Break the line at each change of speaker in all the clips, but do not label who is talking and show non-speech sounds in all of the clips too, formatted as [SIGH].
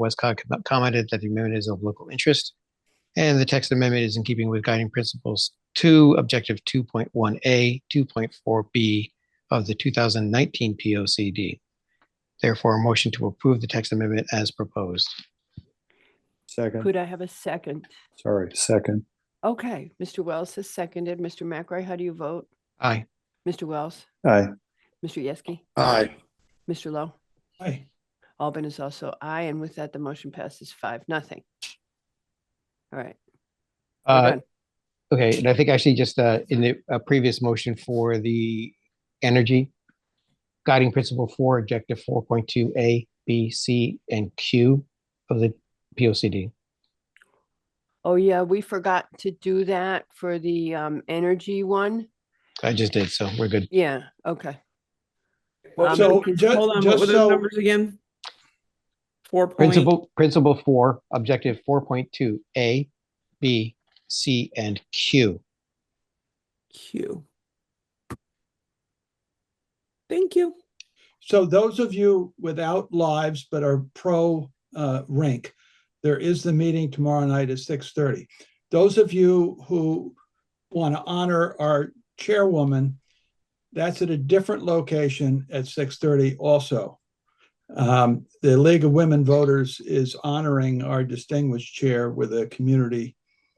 Westcott com- commented that the amendment is of local interest. And the text amendment is in keeping with guiding principles two, objective two point one A, two point four B of the two thousand nineteen P O C D. Therefore, a motion to approve the text amendment as proposed.
Second,
Could I have a second?
sorry, second,
Okay, Mr. Wells has seconded. Mr. McRae, how do you vote?
Aye.
Mr. Wells,
aye,
Mr. Yeski,
Aye.
Mr. Lowe?
Aye.
Albin is also aye, and with that, the motion passes five, nothing. All right. we're
Uh,
done.
Okay, and I think actually just uh, in the uh, previous motion for the energy guiding principle four, objective four point two A, B, C, and Q of the P O C D.
Oh, yeah, we forgot to do that for the um, energy one.
I just did, so we're good.
Yeah, okay. Um,
So,
because-
ju-
Hold on, what
just
were those
so,
numbers again? Four point.
Principle, principle four, objective four point two, A, B, C, and Q.
Q. Thank you.
so those of you without lives but are pro uh, rink, there is the meeting tomorrow night at six thirty. Those of you who want to honor our chairwoman, that's at a different location at six thirty also. Um, the League of Women Voters is honoring our distinguished chair with a community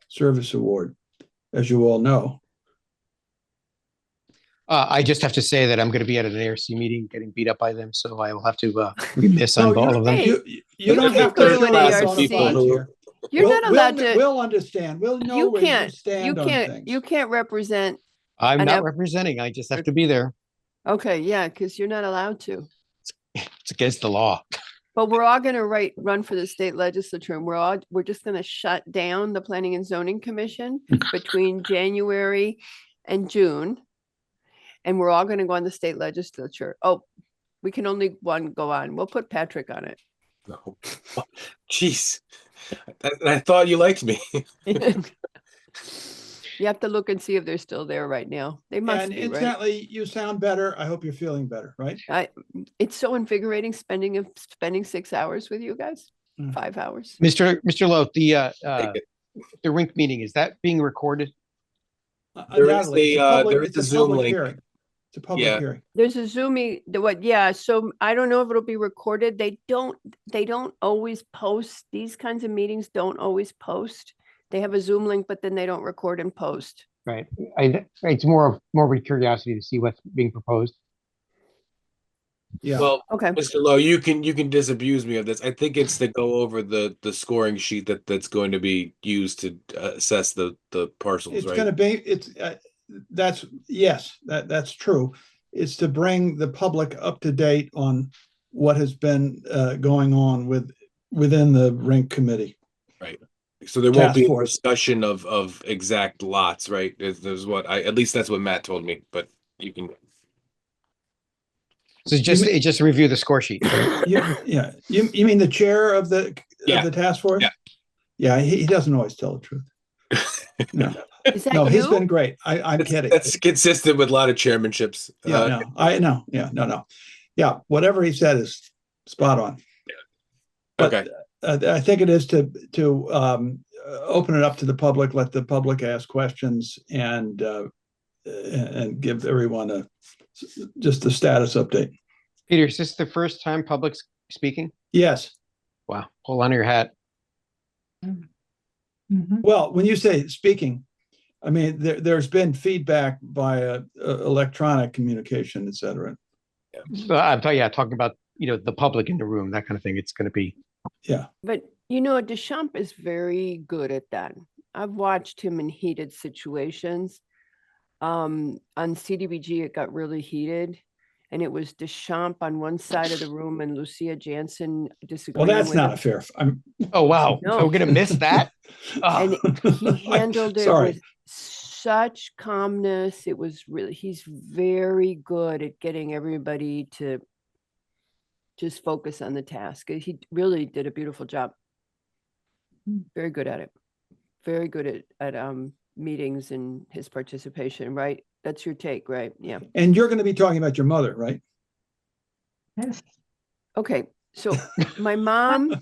service award, as you all know.
Uh, I just have to say that I'm going to be at an ARC meeting getting beat up by them, so I will have to [LAUGHS] uh, miss on
No,
all of them.
Hey,
You, you- you
you
don't
can't
have
go
to.
to an
rely on
ARC.
volunteer.
You're
We'll-
not allowed
we'll-
to,
We'll understand. We'll know
you
where you
can't, you
stand on
can't, you
things.
can't represent,
I'm
I
not
know.
representing, I just have to be there.
okay, yeah, because you're not allowed to.
It's against the law. [LAUGHS]
But we're all gonna write, run for the state legislature and we're all, we're just gonna shut down the planning and zoning commission between January and June. And we're all gonna go on the state legislature. Oh, we can only one go on. We'll put Patrick on
No. [LAUGHS] Jeez. I, I thought you liked me.
it. You have to look and see if they're still there right now. They must
And
be, right?
incidentally, you sound better. I hope you're feeling better, right?
It's so invigorating spending, of spending six hours with you guys,
Mm.
five hours.
Mr. Mr. Lowe, the uh, uh,
Take it.
the rink meeting, is that being recorded?
Uh,
There is
undoubtedly,
the,
it's a
uh,
public-
there
it's
is the
a
Zoom
public
link.
hearing. It's a public
Yeah.
hearing.
There's a Zoomy, the what, yeah, so I don't know if it'll be recorded. They don't, they don't always post, these kinds of meetings don't always post. They have a Zoom link, but then they don't record and post.
Right. I, it's more of morbid curiosity to see what's being proposed.
Yeah.
Well,
[COUGHS]
Okay,
Mr. Lowe, you can you can disabuse me of this. I think it's to go over the the scoring sheet that that's going to be used to uh, assess the the parcels,
It's
right?
gonna be, it's, uh, that's, yes, that, that's true. It's to bring the public up to date on what has been uh, going on with, within the rink committee.
so there won't
Task
be a
force.
discussion of of exact lots, right? Is, is what I at least that's what Matt told me. But you can
So just, it just review the score sheet.
You- Yeah, you, you mean the chair of the,
Yeah.
of the task force?
Yeah.
Yeah, he, he doesn't always tell the
[LAUGHS]
truth. No.
is
No,
that
he's been
you?
great. I, I'm kidding.
that's consistent with a lot of chairmanships.
Yeah,
Uh,
no, I know. Yeah, no, no. Yeah, whatever he said is spot on. but-
okay.
Uh, I think it is to, to, um, uh, open it up to the public, let the public ask questions and, uh, and, and give everyone a, just a status update.
Peter, is this the first time public s- speaking?
Yes.
Wow, hold on to your hat.
Well, when you say speaking, I mean, there, there's been feedback via uh, electronic communication, et cetera.
Uh, I'm talking, yeah, talking about, you know, the public in the room, that kind of thing. It's going to be,
But you know, Deschamps is very good at that. I've watched him in heated situations. Um, on CDBG, it got really heated. And it was Deschamps on one side of the room and Lucia Jansen
Well,
disagreeing with
that's
him.
not a fair, I'm.
oh, wow,
No.
we're going to miss that?
And
[LAUGHS]
Oh,
he handled it
Sorry.
with such calmness. It was really, he's very good at getting everybody to just focus on the task. Uh, He really did a beautiful job. Very good at it. Very good at, at, um, meetings and his participation, right? That's your take, right? Yeah.
And you're going to be talking about your mother, right?
Okay. So my mom